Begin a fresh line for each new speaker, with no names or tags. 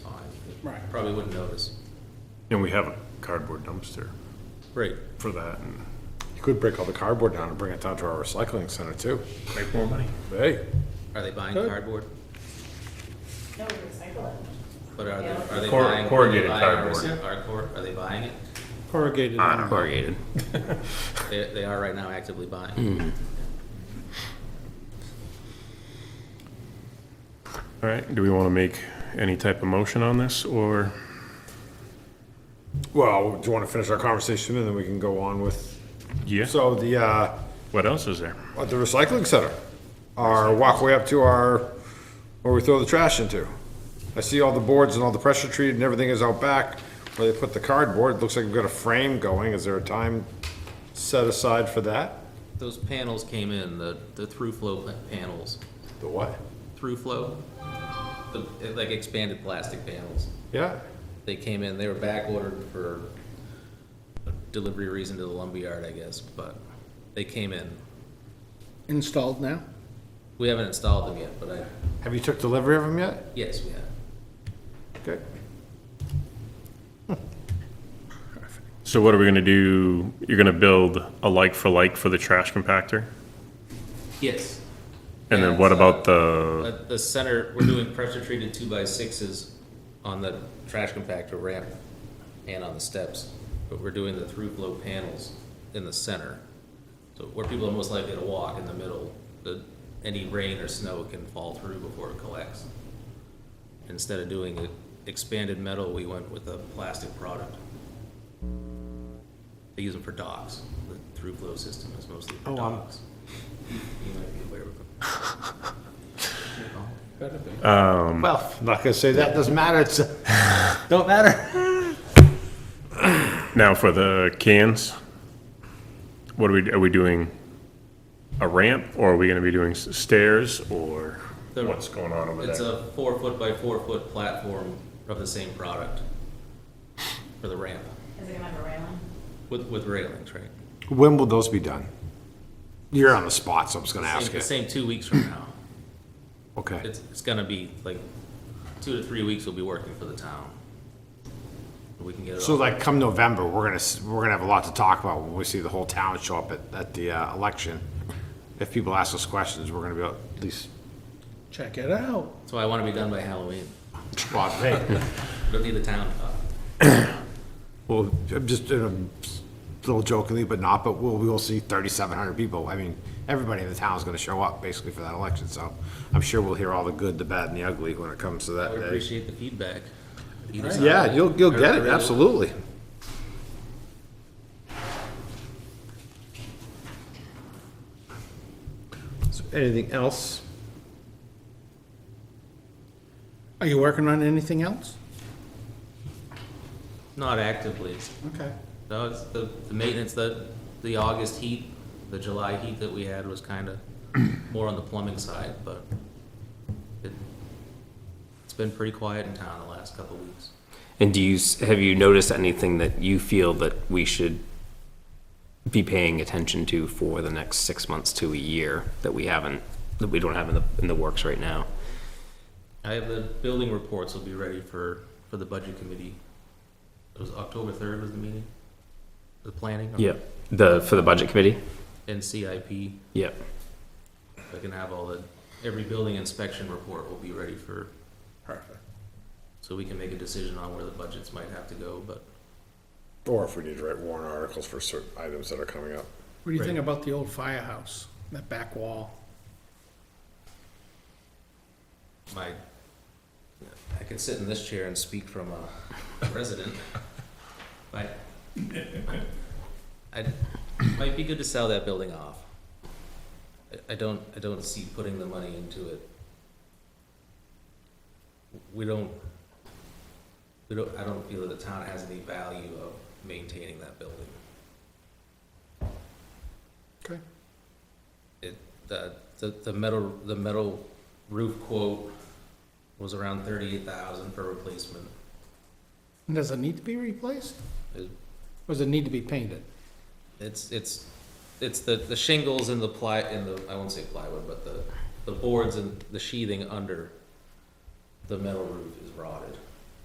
Right.
Probably wouldn't notice.
And we have a cardboard dumpster
Right.
for that, and you could break all the cardboard down and bring it down to our recycling center too. Make more money. Hey,
Are they buying
Good.
cardboard?
No, we recycle it.
But are they,
Yeah.
are they
Cor-
buying?
corrugated
are they buying our-
cardboard.
Our cor, are they buying it?
Corrugated.
corrugated.
They, they are right now actively buying.
all right, do we want to make any type of motion on this, or?
Well, do you want to finish our conversation and then we can go on with,
Yeah,
so the, uh,
what else is there?
at the recycling center, our walkway up to our, where we throw the trash into. I see all the boards and all the pressure treated and everything is out back where they put the cardboard. It looks like we've got a frame going. Is there a time set aside for that?
Those panels came in, the, the through flow pa- panels,
The what?
through flow, the, it like expanded plastic panels.
Yeah,
They came in, they were back ordered for a delivery reason to the lumberyard, I guess, but they came in.
Installed now?
We haven't installed them yet, but I,
have you took delivery of them yet?
yes, we have.
Good.
So what are we going to do? You're going to build a like for like for the trash compactor?
Yes.
And then what about the,
At the center, we're doing pressure treated two by sixes on the trash compactor ramp and on the steps, but we're doing the through flow panels in the center. So where people are most likely to walk in the middle, the, any rain or snow can fall through before it collects. Instead of doing it expanded metal, we went with a plastic product. They use them for docks. The through flow system is mostly for docks. You might be aware of them.
Well, I'm not gonna say that. Doesn't matter. It's,
Don't matter.
now for the cans? What are we, are we doing a ramp or are we going to be doing s- stairs or
The-
what's going on over
It's
there?
a four foot by four foot platform of the same product for the ramp
Is it gonna have a railing?
with, with railings, right?
when will those be done? You're on the spot, so I'm just gonna ask
Same- The
it.
same two weeks from now.
Okay.
It's, it's gonna be like, two to three weeks we'll be working for the town. We can get it
So
all,
like come November, we're gonna, s- we're gonna have a lot to talk about when we see the whole town show up at, at the uh, election. If people ask us questions, we're gonna be able- at least,
Check it out.
that's why I wanna be done by Halloween.
well, hey,
Don't need the town talk.
well, I'm just, um, a little jokingly, but not, but we'll, we will see thirty-seven hundred people. I mean, everybody in the town is gonna show up basically for that election, so I'm sure we'll hear all the good, the bad and the ugly when it comes to
I
that
would
day.
appreciate the feedback. Either
Yeah,
side.
you'll, you'll get
I
it,
really-
absolutely. So anything else?
Are you working on anything else?
Not actively, it's
Okay.
No, it's the, the maintenance, the, the August heat, the July heat that we had was kind of more on the plumbing side, but it, it's been pretty quiet in town the last couple of weeks.
And do you s- have you noticed anything that you feel that we should be paying attention to for the next six months to a year that we haven't that we don't have in the in the works right now?
I have the building reports will be ready for, for the budget committee. It was October third was the meeting, the planning?
The for the budget committee.
And CIP,
Yep.
I can have all the, every building inspection report will be ready for,
Perfect.
so we can make a decision on where the budgets might have to go, but
Or if we need to write warrant articles for certain items that are coming up.
What do you think about the old firehouse, that back wall?
my, I can sit in this chair and speak from a resident, but I, might be good to sell that building off. I, I don't, I don't see putting the money into it. We don't, we don't, I don't feel that the town has any value of maintaining that building.
Okay.
It, the, the, the metal, the metal roof quote was around thirty-eight thousand for replacement.
And does it need to be replaced?
It-
Or does it need to be painted?
It's, it's, it's the, the shingles and the ply, and the, I won't say plywood, but the, the boards and the sheathing under the metal roof is rotted.